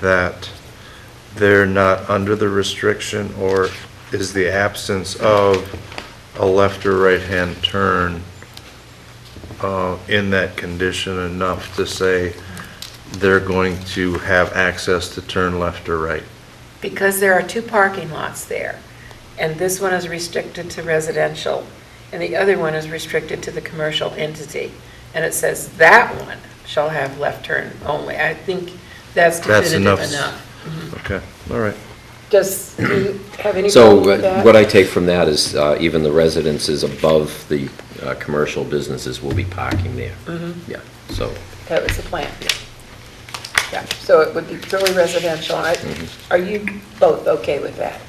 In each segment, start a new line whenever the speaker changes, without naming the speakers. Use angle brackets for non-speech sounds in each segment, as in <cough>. that they're not under the restriction, or is the absence of a left or right-hand turn uh, in that condition enough to say they're going to have access to turn left or right?
Because there are two parking lots there, and this one is restricted to residential, and the other one is restricted to the commercial entity. And it says that one shall have left turn only. I think that's
That's
definitive
enough.
enough.
Okay, all right.
Does, do you have any
So
problem with
uh,
that?
what I take from that is uh, even the residences above the uh, commercial businesses will be parking there. Yeah, so,
That was the plan. Yeah, so it would be purely residential. I-
Mm-hmm.
Are you both okay with that?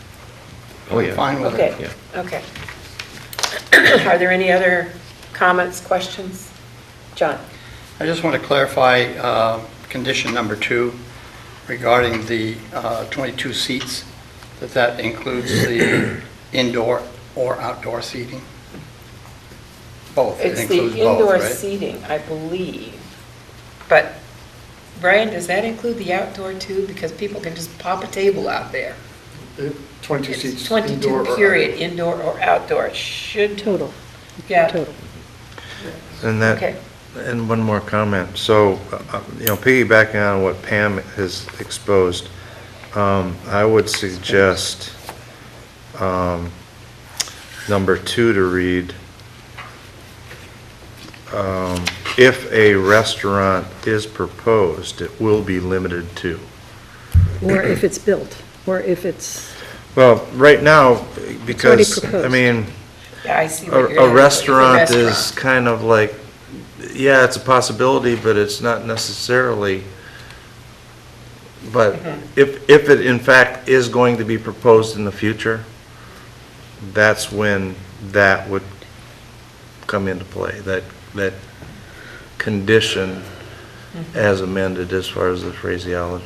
oh, yeah.
Fine with it.
Okay,
Yeah.
okay. <clears throat> Are there any other comments, questions? John?
I just want to clarify uh, condition number two regarding the uh, 22 seats, that that includes
<coughs>
the indoor or outdoor seating? Both, it
It's the
includes both,
indoor
right?
seating, I believe. But, Brian, does that include the outdoor too? Because people can just pop a table out there.
22
It's
seats indoor or
22,
outdoor.
period, indoor or outdoor, It should. Total. Yeah,
Total.
And that,
okay.
And one more comment. So, uh, uh, you know, piggybacking on what Pam has exposed, um, I would suggest um, number two to read, um, if a restaurant is proposed, it will be limited to.
Or if it's built, or if it's,
Well, right now, because, I
proposed.
mean,
Yeah, I see what you're.
a a
doing.
restaurant
It's a
is kind of like, yeah, it's a possibility, but it's not necessarily. But
Mm-hmm.
if, if it in fact is going to be proposed in the future, that's when that would come into play, that, that condition
Mm-hmm.
as amended as far as the phraseology.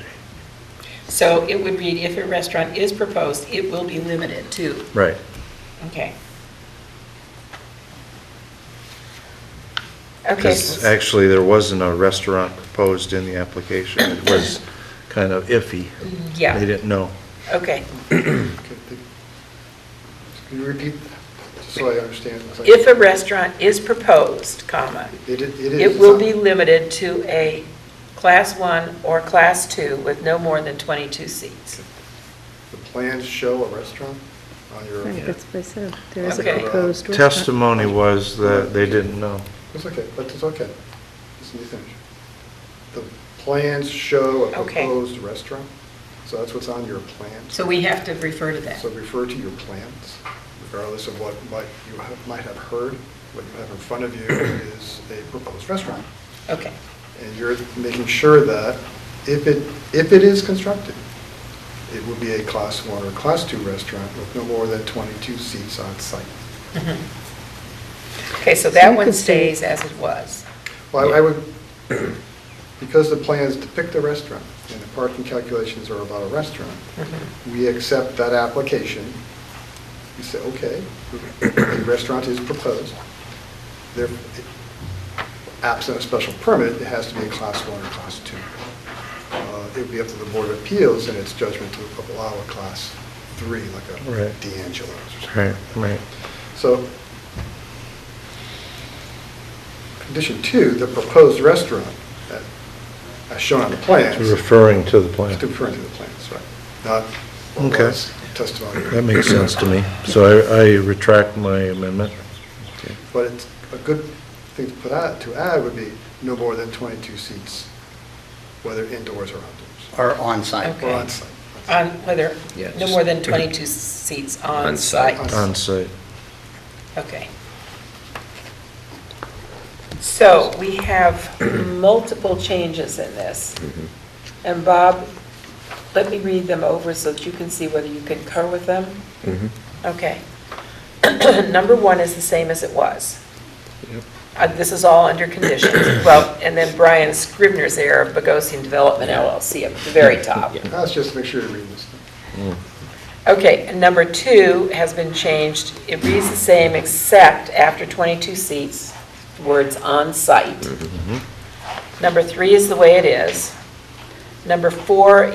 So it would read, if a restaurant is proposed, it will be limited to,
Right.
okay. Okay.
Because actually, there wasn't a restaurant proposed in the application. It was kind of iffy.
Yeah.
They didn't know.
Okay.
Okay, the- Can you repeat, that, just so I understand? It's like-
If a restaurant is proposed, comma,
It is. is,
it will
it's
be
not-
limited to a Class 1 or Class 2 with no more than 22 seats.
The plans show a restaurant on your,
right, that's what I said, there is a
Okay.
proposed storefront.
Testimony was that they didn't know.
it's okay, but it's okay. Just let me finish. The plans show a
Okay.
proposed restaurant, so that's what's on your plans.
So we have to refer to that.
So refer to your plans, regardless of what might- you have- might have heard. What you have in front of you is a proposed restaurant.
<laughs>
Okay,
And you're making sure that if it, if it is constructed, it will be a Class 1 or Class 2 restaurant with no more than 22 seats on site.
okay, so
So
that
you
one
could say-
stays as it was.
Well, I would, because the plans depict a restaurant and the parking calculations are about a restaurant,
Mm-hmm.
we accept that application. We say, okay, a restaurant is proposed. There, absent a special permit, it has to be a Class 1 or Class 2. Uh, It would be up to the Board of Appeals in its judgment to allow a Class 3, like a
Right.
D'Angelo's or something.
Right, right.
So, condition two, the proposed restaurant, that- as shown on the plans, is
Referring to the plan.
to refer to the plans, right? Not what
Oh, Okay.
was testimony.
That makes sense to me. So I I retract my amendment.
But it's, a good thing to put out, to add would be no more than 22 seats, whether indoors or outdoors,
Or on-site?
Okay.
or on-site.
On whether,
Yeah,
no
just-
more than 22 seats on
On site.
site.
On site.
Okay. So we
<clears throat>
have multiple changes in this.
Mm-hmm.
And Bob, let me read them over so that you can see whether you concur with them.
Mm-hmm.
Okay. <clears throat> Number one is the same as it was. Uh, This is all under conditions. Well, and then Brian Scrivener's error of Bogosian Development LLC up at the very top.
Now, Let's just make sure you read this.
Okay, and number two has been changed. It reads the same, except after 22 seats, words on-site. Number three is the way it is. Number four